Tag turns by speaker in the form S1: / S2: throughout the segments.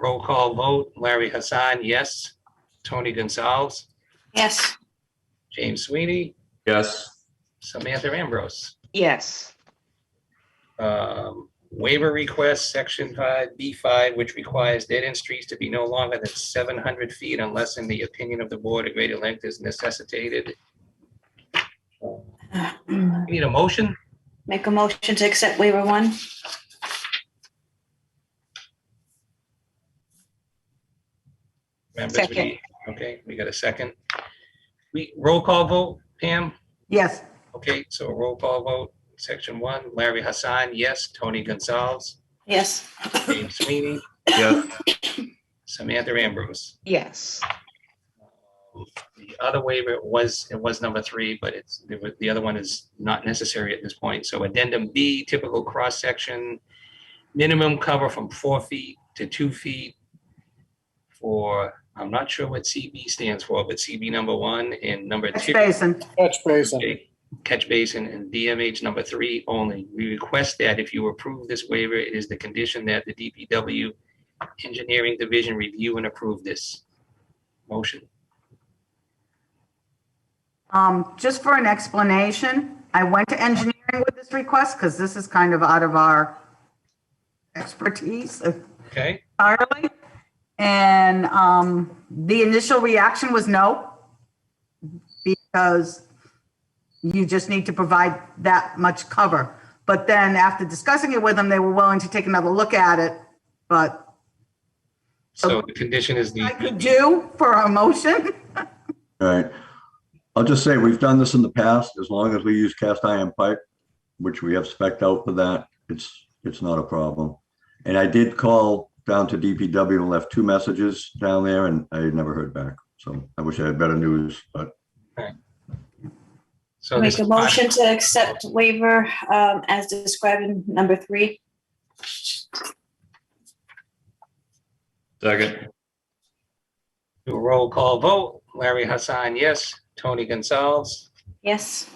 S1: Roll call vote, Larry Hassan, yes. Tony Gonzalez,
S2: Yes.
S1: James Sweeney,
S3: Yes.
S1: Samantha Ambrose.
S2: Yes.
S1: Um, Waiver request, section five, B five, which requires dead end streets to be no longer than seven hundred feet unless in the opinion of the board, a greater length is necessitated. We Need a motion?
S2: Make a motion to accept waiver one?
S1: Members, we
S2: Second.
S1: need- Okay, we got a second. We, roll call vote, Pam?
S4: Yes.
S1: Okay, so a roll call vote, section one, Larry Hassan, yes. Tony Gonzalez,
S2: Yes.
S1: James Sweeney,
S3: Yes.
S1: Samantha Ambrose.
S2: Yes.
S1: The other waiver was, it was number three, but it's, the other one is not necessary at this point. So addendum B, typical cross-section, minimum cover from four feet to two feet for, I'm not sure what CB stands for, but CB number one and number
S4: Catch
S1: two.
S4: basin.
S5: Catch basin.
S1: Okay. Catch basin and DMH number three only. We request that if you approve this waiver, it is the condition that the DPW Engineering Division review and approve this. Motion.
S4: Um, just for an explanation, I went to engineering with this request because this is kind of out of our expertise
S1: Okay,
S4: entirely. And, um, the initial reaction was no. Because you just need to provide that much cover. But then after discussing it with them, they were willing to take another look at it. But
S1: so the condition is
S4: I
S1: the,
S4: could do for a motion.
S6: All right. I'll just say, we've done this in the past, as long as we use cast iron pipe, which we have spec'd out for that, it's, it's not a problem. And I did call down to DPW and left two messages down there and I never heard back. So I wish I had better news, but
S1: so this.
S2: Make a motion to accept waiver um, as described in number three?
S3: Second.
S1: Do a roll call vote. Larry Hassan, yes. Tony Gonzalez,
S2: Yes.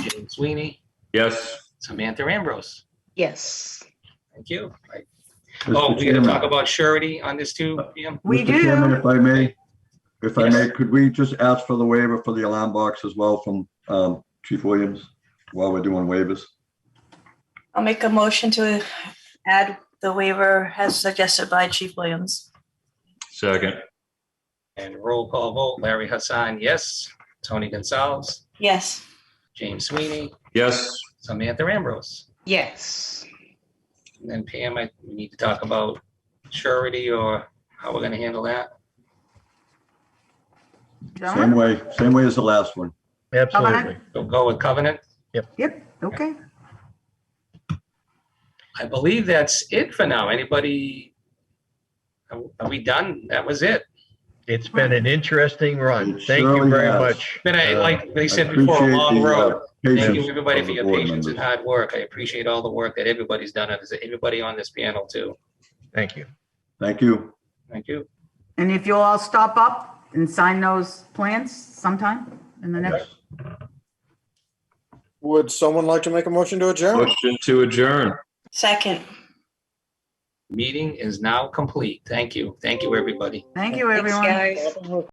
S1: James Sweeney,
S3: Yes.
S1: Samantha Ambrose.
S2: Yes.
S1: Thank you. Right.
S6: Mr.
S1: Oh, we gotta
S6: Chairman-
S1: talk about surety on this too, Pam?
S4: We
S6: Mr. Chairman,
S4: do.
S6: If I may, if I
S1: Yes.
S6: may, could we just ask for the waiver for the alarm box as well from um, Chief Williams while we're doing waivers?
S2: I'll make a motion to add the waiver as suggested by Chief Williams.
S3: Second.
S1: And roll call vote. Larry Hassan, yes. Tony Gonzalez,
S2: Yes.
S1: James Sweeney,
S3: Yes.
S1: Samantha Ambrose.
S2: Yes.
S1: And then Pam, I, we need to talk about surety or how we're gonna handle that.
S6: Same way, same way as the last one.
S4: Absolutely.
S1: So go with covenant.
S4: Yep, okay.
S1: I believe that's it for now. Anybody? Are are we done? That was it.
S7: It's been an interesting run.
S6: It
S7: Thank
S6: surely
S7: you very
S6: has.
S7: much.
S1: But I,
S7: Uh,
S1: like they
S6: I
S1: said before, a
S6: appreciate
S1: long
S6: the, uh,
S1: road. Thank
S6: patience
S1: you, everybody,
S6: of
S1: for
S6: the
S1: your
S6: board
S1: patience and
S6: members.
S1: hard work. I appreciate all the work that everybody's done. and Everybody on this panel too.
S7: Thank you.
S6: Thank you.
S1: Thank you.
S4: And if you'll all stop up and sign those plans sometime in the next,
S5: Would someone like to make a motion to adjourn?
S3: Motion to adjourn.
S2: Second.
S1: Meeting is now complete. Thank you. Thank you, everybody.
S4: thank you,
S2: Thanks,
S4: everyone.
S2: guys.